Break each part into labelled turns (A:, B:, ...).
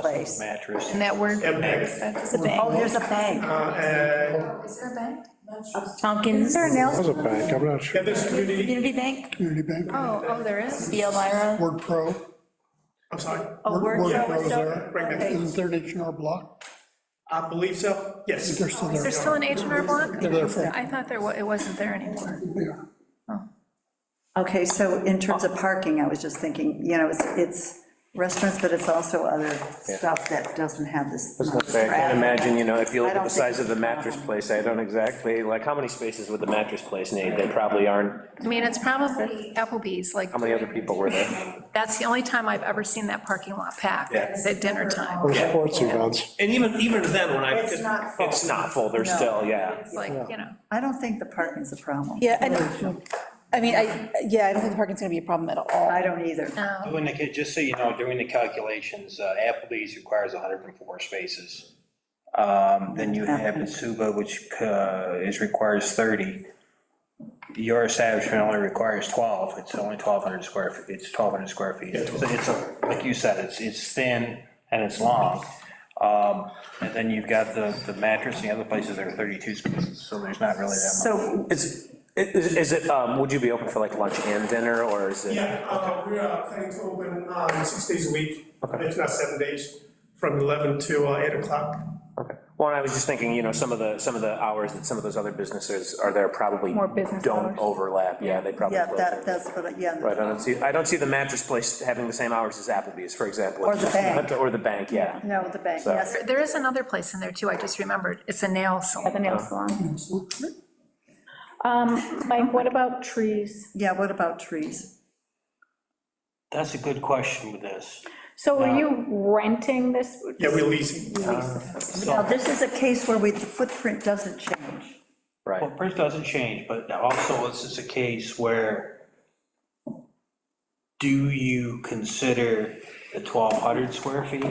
A: place.
B: mattress.
C: And that word,
D: And bank.
C: that's a
A: Oh,
C: bank.
A: there's a bank.
D: Uh, And,
C: Is there a bank?
A: Is
C: Tompkins.
A: there
C: Oh,
A: an
E: That
A: L,
E: was a bank, I'm not sure.
D: and there's community,
A: community bank?
E: Community Bank,
C: oh, there is.
A: B. Elmira?
E: Word Pro.
D: I'm sorry,
A: Oh, Word Pro
E: Pro
A: is
E: is
A: still-
E: there.
A: okay.
E: Isn't there an H and R Block?
D: I believe so, yes.
E: They're
A: Oh,
E: still there.
C: There's still an H and R Block?
E: They're there for,
C: I thought there was, it wasn't there anymore.
E: yeah.
A: Okay, so in terms of parking, I was just thinking, you know, it's, it's restaurants, but it's also other stuff that doesn't have this.
B: I was gonna say, I can't imagine, you know, if you
A: I
B: look at
A: don't
B: the
A: think
B: size of the
A: it's a
B: mattress
A: problem.
B: place, I don't exactly, like, how many spaces would the mattress place need? They probably aren't,
C: I mean, it's probably Applebee's, like,
B: how many other people were there?
C: that's the only time I've ever seen that parking lot packed,
B: Yeah.
C: is at dinner time.
E: Or sports events.
B: And even, even then, when I.
A: It's not full.
B: It's not full, they're
A: No.
B: still, yeah.
C: It's like, you know,
A: I don't think the parking's a problem.
F: Yeah, and, I mean, I, yeah, I don't think the parking's gonna be a problem at all.
A: I don't either.
C: no.
G: Doing the, just so you know, doing the calculations, uh, Applebee's requires 104 spaces. Um, Then you have Asuba, which uh, is, requires 30. Your establishment only requires 12, it's only 1,200 square, feet. it's 1,200 square feet. So It's, a- like you said, it's, it's thin and it's long. Um, And then you've got the, the mattress, and the other places there are 32 spaces, so there's not really that
A: So,
G: much.
B: Is, is is it, um, would you be open for like lunch and dinner, or is it?
D: Yeah, uh, we're uh, planning to open um, six days a week, if not seven days, from 11 to uh, 8 o'clock.
B: Okay. Well, and I was just thinking, you know, some of the, some of the hours that some of those other businesses are there probably.
F: More business
B: Don't
F: hours.
B: overlap, yeah, they probably.
A: yeah,
B: close
A: that,
B: early.
A: that's what, I- yeah.
B: Right, I don't see, I don't see the mattress place having the same hours as Applebee's, for example.
A: Or the bank.
B: Or the bank, yeah.
A: No, the bank, yes.
C: There- There is another place in there too, I just remembered, it's a nail salon.
H: the nail salon. Um, Mike, what about trees?
A: Yeah, what about trees?
G: That's a good question with this.
H: So are you renting this?
D: Yeah, we're leasing.
G: Uh,
A: Now, this is a case where we, the footprint doesn't change.
B: Right.
G: Footprint doesn't change, but also this is a case where do you consider the twelve hundred square feet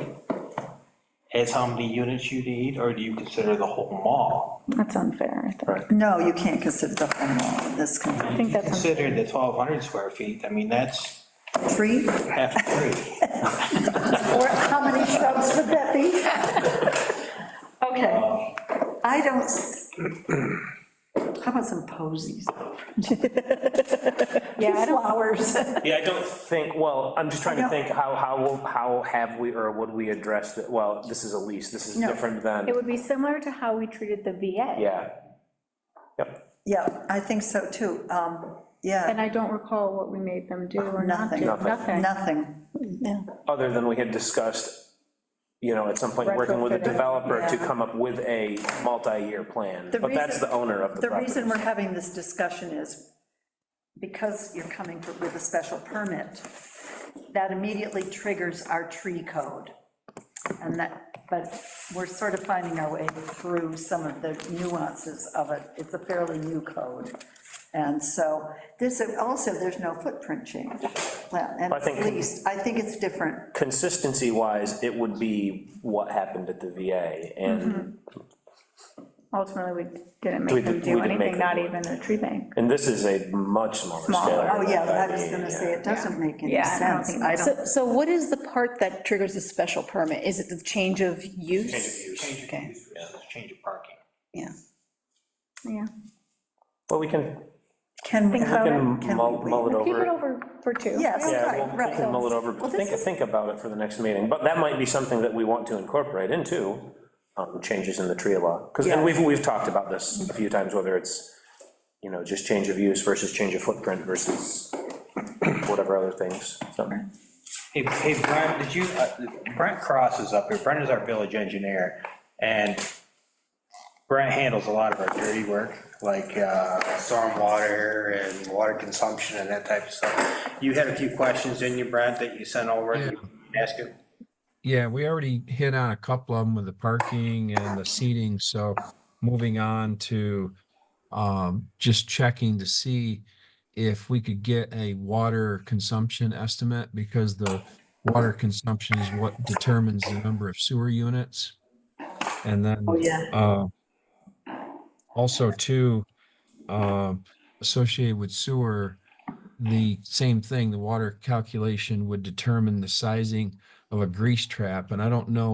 G: as how many units you need, or do you consider the whole mall?
H: That's unfair, I think.
A: No, you can't consider the whole mall in this kind
H: I think
G: If you
H: that's,
G: Consider the twelve hundred square feet, I mean, that's
A: of tree.
G: half three.
A: Or how many shrubs would that be?
H: okay.
A: I don't, s- how about some posies?
H: Yeah, I don't,
A: Flowers.
B: Yeah, I don't think, well, I'm just trying to think, how, how, how have we, or would we address that, well, this is a lease, this is different than,
H: it would be similar to how we treated the VA.
B: yeah. Yep,
A: Yeah, I think so too. Um,
H: And
A: Yeah,
H: I don't recall what we made them do or not do.
A: nothing,
H: Nothing.
A: nothing.
B: other than we had discussed, you know, at some point, working with a
H: Retrofitting.
B: developer to come up with a multi-year plan,
A: The
B: but that's
A: reason-
B: the owner of the
A: The
B: property.
A: reason we're having this discussion is because you're coming for- with a special permit, that immediately triggers our tree code. And that, but we're sort of finding our way through some of the nuances of it. It's a fairly new code. And so this, also, there's no footprint change. Well, And
B: I think-
A: at least, I think it's different.
B: Consistency-wise, it would be what happened at the VA,
A: Mm-hmm.
B: and,
H: Ultimately, we didn't
B: We
H: make
B: did-
H: them
B: we
H: do
B: didn't make
H: anything,
B: them
H: not
B: do
H: even a tree bank.
B: and this is a much smaller scale.
H: Smaller.
A: Oh, yeah,
B: I
A: I was
B: mean,
A: gonna say, it doesn't make any
H: Yeah, I don't
A: sense.
H: think
A: I
H: so.
A: don't,
F: So, so what is the part that triggers the special permit? Is it the change of use? Change of use.
G: Change of
F: Okay,
G: use versus change of parking.
F: yeah.
H: Yeah.
B: Well, we can,
A: can we,
H: Think
B: we
H: about it.
B: can
A: Can
B: mull
A: we
B: mull it
H: Keep it
B: over.
H: over for two.
A: yes,
B: Yeah,
A: right,
B: we'll- we can
A: right.
B: mull it over, but think, think about it for the next meeting, but that might be something that we want to incorporate into um, changes in the tree law, because, and we've, we've talked about this a few times, whether it's, you know, just change of use versus change of footprint versus whatever other things, so.
G: Hey, hey, Brent, did you, uh, Brent Cross is up here, Brent is our village engineer, and Brent handles a lot of our dirty work, like uh, stormwater and water consumption and that type of stuff. You had a few questions, didn't you, Brent, that you sent over, and you asked him?
I: Yeah, we already hit on a couple of them with the parking and the seating, so moving on to um, just checking to see if we could get a water consumption estimate, because the water consumption is what determines the number of sewer units. And then uh, also too, um, associated with sewer, the same thing, the water calculation would determine the sizing
H: of a grease trap, and I don't know